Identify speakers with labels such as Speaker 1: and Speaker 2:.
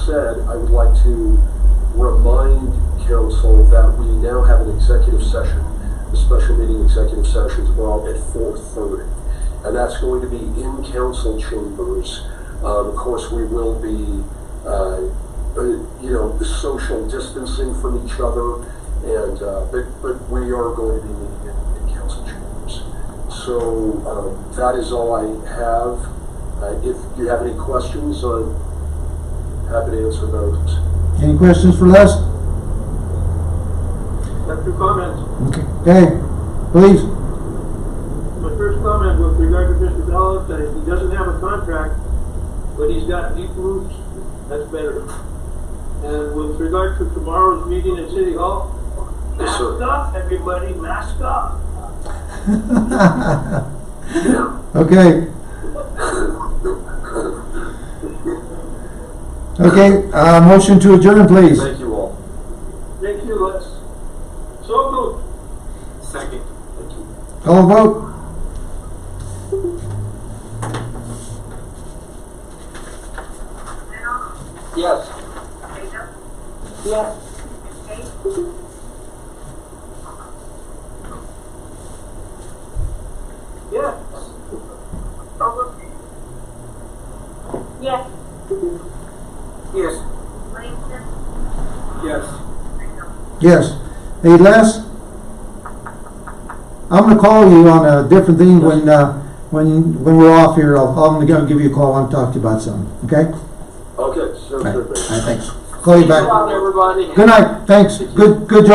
Speaker 1: said, I would like to remind council that we now have an executive session. The special meeting executive sessions are at four thirty. And that's going to be in council chambers. Um, of course, we will be, uh, uh, you know, social distancing from each other. And, uh, but, but we are going to be meeting in, in council chambers. So, um, that is all I have. Uh, if you have any questions, I'm happy to answer those.
Speaker 2: Any questions for Les?
Speaker 3: have two comments.
Speaker 2: Okay. Dave, please.
Speaker 3: My first comment with regard to Mr. Dallas, that if he doesn't have a contract, but he's got deep roots, that's better. And with regard to tomorrow's meeting at City Hall,
Speaker 1: Yes,
Speaker 3: mask
Speaker 1: sir.
Speaker 3: up, everybody, mask up.
Speaker 2: Okay. Okay, uh, motion to adjourn, please.
Speaker 1: Thank you all.
Speaker 3: Thank you, let's, so moved.
Speaker 4: Second.
Speaker 1: Thank you.
Speaker 2: Call a vote.
Speaker 1: Yes.
Speaker 3: Yes. Yes.
Speaker 5: Yes,
Speaker 4: Yes.
Speaker 5: Langston,
Speaker 4: Yes.
Speaker 2: Yes. Hey, Les? I'm gonna call you on a different thing when, uh, when, when we're off here. I'll, I'm gonna give you a call. I'll talk to you about something, okay?
Speaker 1: Okay, sounds
Speaker 2: All
Speaker 1: good.
Speaker 2: right,
Speaker 1: thank you.
Speaker 2: thanks. Call you
Speaker 3: Come
Speaker 2: back.
Speaker 3: on, everybody.
Speaker 2: Good night, thanks. Good, good job.